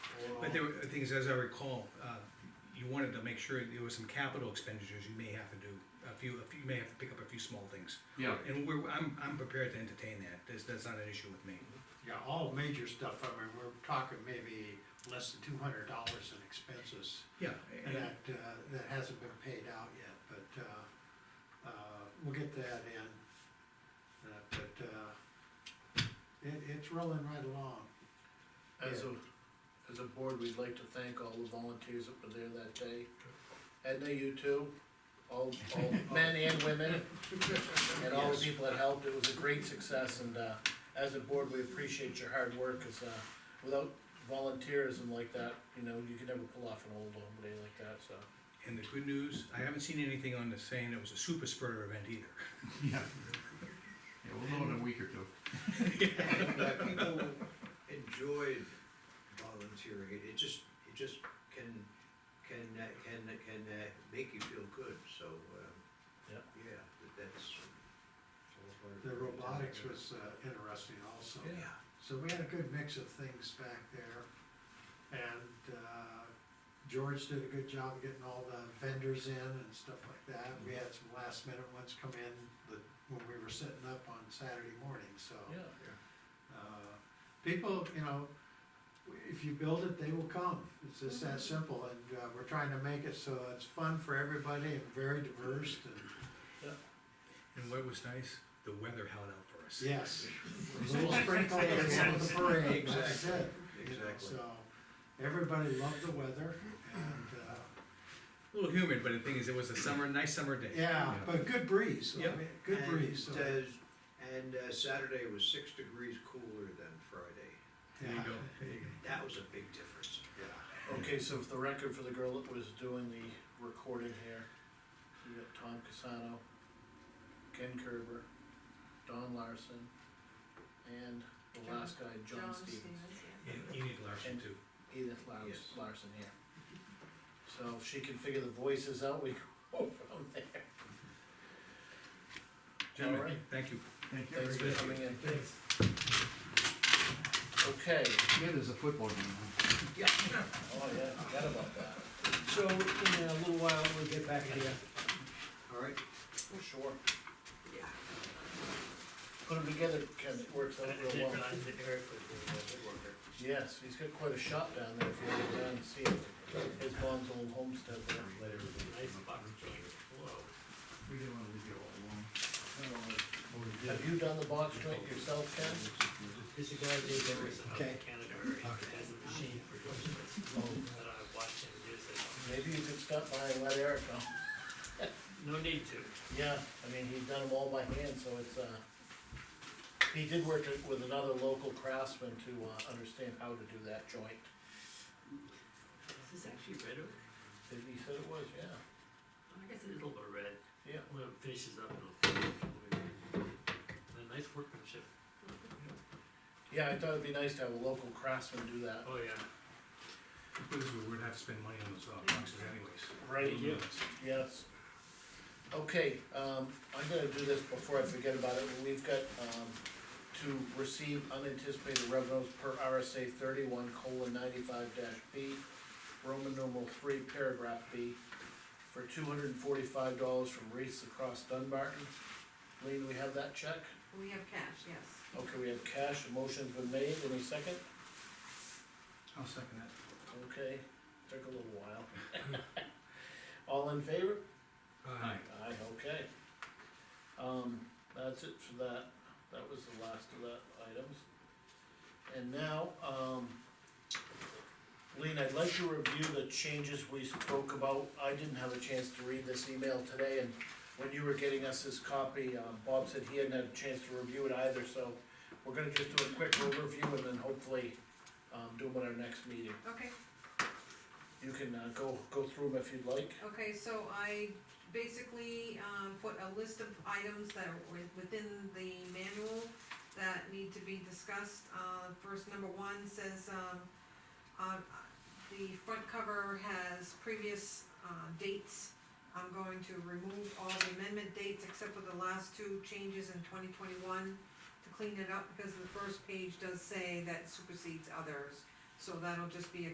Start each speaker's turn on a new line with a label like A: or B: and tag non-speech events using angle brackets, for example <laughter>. A: But there, were- the thing is, as I recall, uh, you wanted to make sure there was some capital expenditures you may have to do, a few, a few- you may have to pick up a few small things.
B: Yeah,
A: And we're, I'm, I'm prepared to entertain that, that's, that's not an issue with me.
C: Yeah, all major stuff, I mean, we're talking maybe less than two hundred dollars in expenses
A: Yeah,
C: that,
A: and-
C: uh, that hasn't been paid out yet, but, uh, uh, we'll get that in. Uh, But, uh, it, it's rolling right along.
D: As a, as a board, we'd like to thank all the volunteers that were there that day. Edna, you too, all, all men and women, and all the people that helped, it was a great success, and, uh, as a board, we appreciate your hard work, cause, uh, without volunteerism like that, you know, you could never pull off an old home day like that, so.
A: and the good news, I haven't seen anything on this saying it was a super spreader event either.
B: yeah. <laughs> Yeah, we'll know in a week or two.
E: that people enjoyed volunteering, it, it just, it just can, can, uh, can, can uh, make you feel good, so, um.
D: Yep.
E: Yeah, that- that's. all part of
C: The
E: it.
C: robotics was, uh, interesting also.
E: Yeah,
C: So we had a good mix of things back there. And, uh, George did a good job of getting all the vendors in and stuff like that. We had some last minute ones come in, that, when we were setting up on Saturday morning, so.
D: Yeah.
C: Uh, People, you know, if you build it, they will come, it's just that simple, and, uh, we're trying to make it so it's fun for everybody and very diverse, and,
A: And what was nice, the weather held out for us.
C: yes. A Little sprinkle at the end of the parade, that's
E: Exactly.
C: it. you know,
E: exactly.
C: So, everybody loved the weather, and, uh,
A: A little humid, but the thing is, it was a summer, nice summer day.
C: yeah, but good breeze, I
A: Yeah.
C: mean, good
E: And,
C: breeze, so,
E: uh, And uh, Saturday was six degrees cooler than Friday,
A: There you
E: uh,
C: yeah.
A: go.
E: that was a big difference. Yeah.
D: Okay, so for the record, for the girl that was doing the recording here, we got Tom Casano, Ken Kerber, Don Larson, and the last guy, John Stevens,
A: And Enid Larson too.
D: Edith Lars-
E: Yes.
D: Larson here. So if she can figure the voices out, <laughs> we go from there.
A: Gentlemen, thank you.
B: Thank
D: Thanks for coming in. Okay,
B: Yeah, there's a football game.
D: oh yeah, I forgot about that,
E: So in a little while, we'll get back to you. All right,
D: for sure.
E: yeah.
D: Put them together, Ken, it works out real well. Yes, he's got quite a shop down there, if you want to go down and see it. His mom's old homestead there.
B: We didn't wanna leave you all alone.
D: Have you done the box joint yourself, Ken?
F: This guy did everything out
D: Okay.
F: in Canada already, has a machine for doing this, that I watched him use it.
D: Maybe you could stop by and let Eric know.
F: No need to,
D: Yeah, I mean, he's done them all by hand, so it's, uh, he did work it with another local craftsman to, uh, understand how to do that joint.
F: is this actually red oak?
D: He he said it was, yeah,
F: I guess it's a little bit red,
D: yeah.
F: when it finishes up, it'll. A nice workmanship,
D: Yeah, I thought it'd be nice to have a local craftsman do that.
F: oh yeah,
A: Because we would have to spend money on those uh, boxes anyways.
D: Right,
F: yeah.
D: Yes. Okay, um, I'm gonna do this before I forget about it, we've got, um, to receive unanticipated revenues per RSA thirty-one colon ninety-five dash B, Roman numeral three, paragraph B, for two hundred and forty-five dollars from Reese across Dunbarton. Lean, we have that check?
G: We have cash, yes.
D: Okay, we have cash, a motion's been made, any second?
A: I'll second that.
D: Okay, took a little while. <laughs> All in favor?
A: Aye.
D: Aye, okay. Um, that's it for that, that was the last of that items. And now, um, Lean, I'd like to review the changes we spoke about, I didn't have a chance to read this email today, and when you were getting us this copy, um, Bob said he hadn't had a chance to review it either, so we're gonna just do a quick overview and then hopefully, um, do them at our next meeting.
G: Okay,
D: You can, uh, go, go through them if you'd like.
G: okay, so I basically, um, put a list of items that are wi- within the manual that need to be discussed. Uh, first, number one says, um, uh, the front cover has previous, uh, dates. I'm going to remove all the amendment dates except for the last two changes in twenty twenty-one to clean it up because the first page does say that supersedes others. So that'll just be a